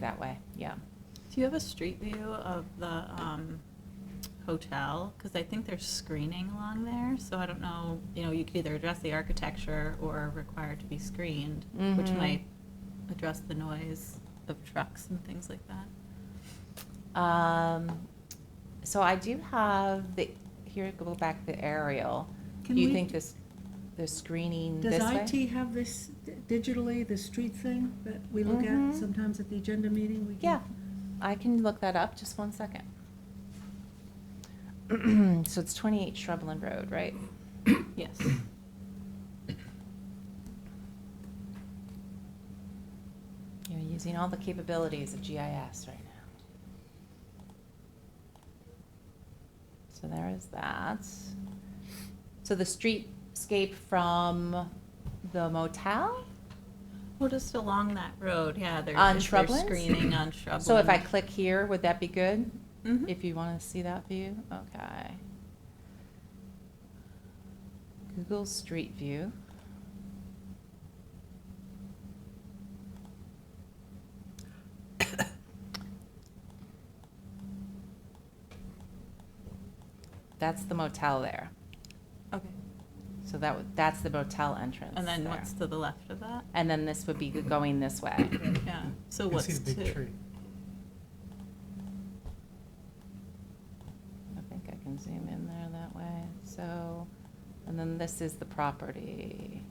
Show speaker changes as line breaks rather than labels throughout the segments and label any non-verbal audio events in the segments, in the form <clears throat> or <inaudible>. that way, yeah.
Do you have a street view of the um, hotel? Because I think there's screening along there, so I don't know, you know, you could either address the architecture or require it to be screened, which
Mhm.
might address the noise of trucks and things like that.
Um, so I do have the, here, go back to the aerial. Do
Can
you
we-
think this, the screening this way?
Does IT have this digitally, the street thing that we look
Mhm.
at sometimes at the agenda meeting? We can-
Yeah, I can look that up, just one second. <clears throat> So it's twenty-eight Shrubland Road, right?
Yes.
You're using all the capabilities of GIS right now. So there is that. So the streetscape from the motel?
Well, just along that road, yeah, there's.
On
if there's
shrublands?
Screening on shrubland.
So if I click here, would that be good?
Mhm.
If you want to see that view? Okay. Google Street View. <coughs> That's the motel there.
Okay.
So that, would- that's the motel entrance.
And then
there.
what's to the left of that?
And then this would be going this way.
Yeah, so
You can
what's
see
to?
the big tree.
I think I can zoom in there that way. So, and then this is the property.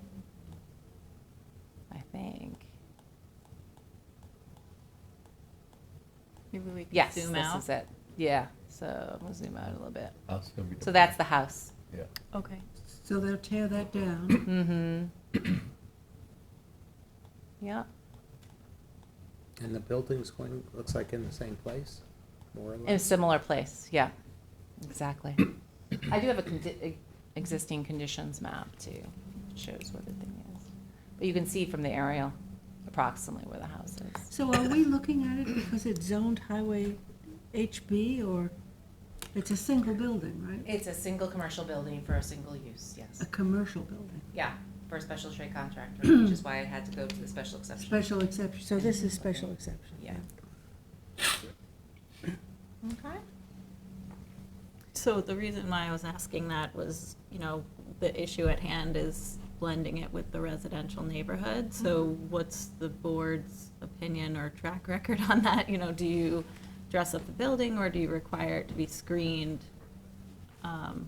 I think.
Maybe we can
Yes,
zoom out?
this is it. Yeah, so we'll zoom out a little bit.
House is gonna be
So that's the house.
Yeah.
Okay.
So they'll tear that down.
Mm-hmm. Yeah,
And the building's going, looks like in the same place, more or
in a
less?
similar place, yeah, exactly. I do have a condi- e- existing conditions map too, which shows where the thing is. But you can see from the aerial approximately where the house is.
So are we looking at it because it's zoned highway HB or it's a single building, right?
It's a single commercial building for a single use,
A
yes.
commercial building,
Yeah, for a special trade contractor, which is why it had to go to the special exception.
special e- exception, so this is special exception.
Yeah. Okay.
So the reason why I was asking that was, you know, the issue at hand is blending it with the residential neighborhood. So
Mm-hmm.
what's the board's opinion or track record on that? You know, do you dress up the building or do you require it to be screened um,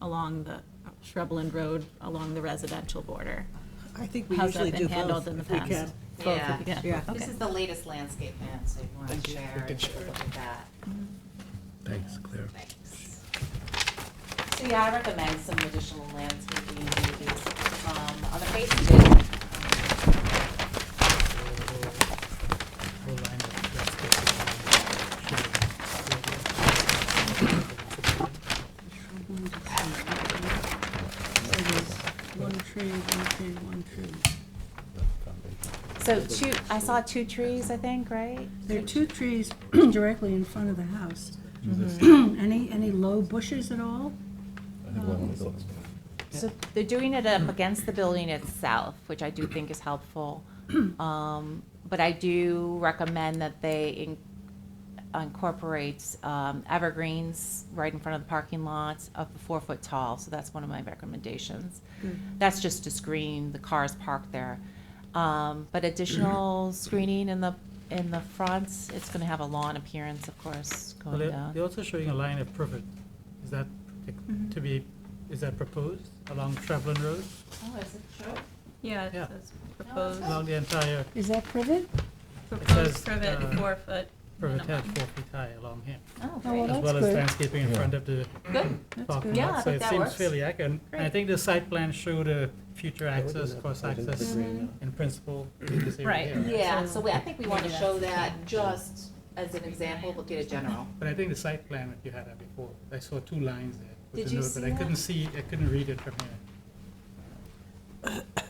along the Shrubland Road, along the residential border?
I think we
How's that
usually
been
do
handled
both
in the
if we
past?
can.
Both, if you can.
Yeah.
Okay.
This is the latest landscape plan, so if you want
Thank
to
you.
share,
We
take
can
a
share.
look at that.
Thanks, Claire.
Thanks. So yeah, I recommend some additional landscaping maybe from other places.
We'll line up that
So
space and, um,
there's one tree, one tree, one tree.
So two, I saw two trees, I think, right?
There are two trees directly in front of the house. <clears throat> Any, any low bushes at all?
So they're doing it up against the building itself, which I do think is <clears throat> helpful. Um, But I do recommend that they in- incorporate um, evergreens right in front of the parking lot of the four foot tall. So that's one of my recommendations. That's just to screen the cars parked there. Um, But <clears throat> additional screening in the, in the front, it's going to have a lawn appearance, of course,
Well,
going
they're
down.
they're also showing a line of privet. Is that
Mm-hmm.
to be, is that proposed along Travelin Road?
Oh, is it true?
Yeah, it
Yeah.
says proposed,
Along the entire
Is that privet?
proposed
says, uh,
privet, four foot.
privet
minimum.
hedge four feet high along here.
Oh,
Oh, well,
great.
As
that's
well as
good.
landscaping in
Yeah.
front of the
Good.
parking lot.
Yeah, I
So
think
it
that
seems
works.
fairly accurate. And I
Great.
think the site plan showed a future access, cross
I didn't
access
agree now.
in principle in this area
Right.
here. right?
Yeah, so we, I think we want to
Maybe
show
that's-
that just as an example, but get a general.
But I think the site plan that you had up before, I saw two lines there. with
Did
the
you
note,
see
But I
that?
couldn't see, I couldn't read it from here.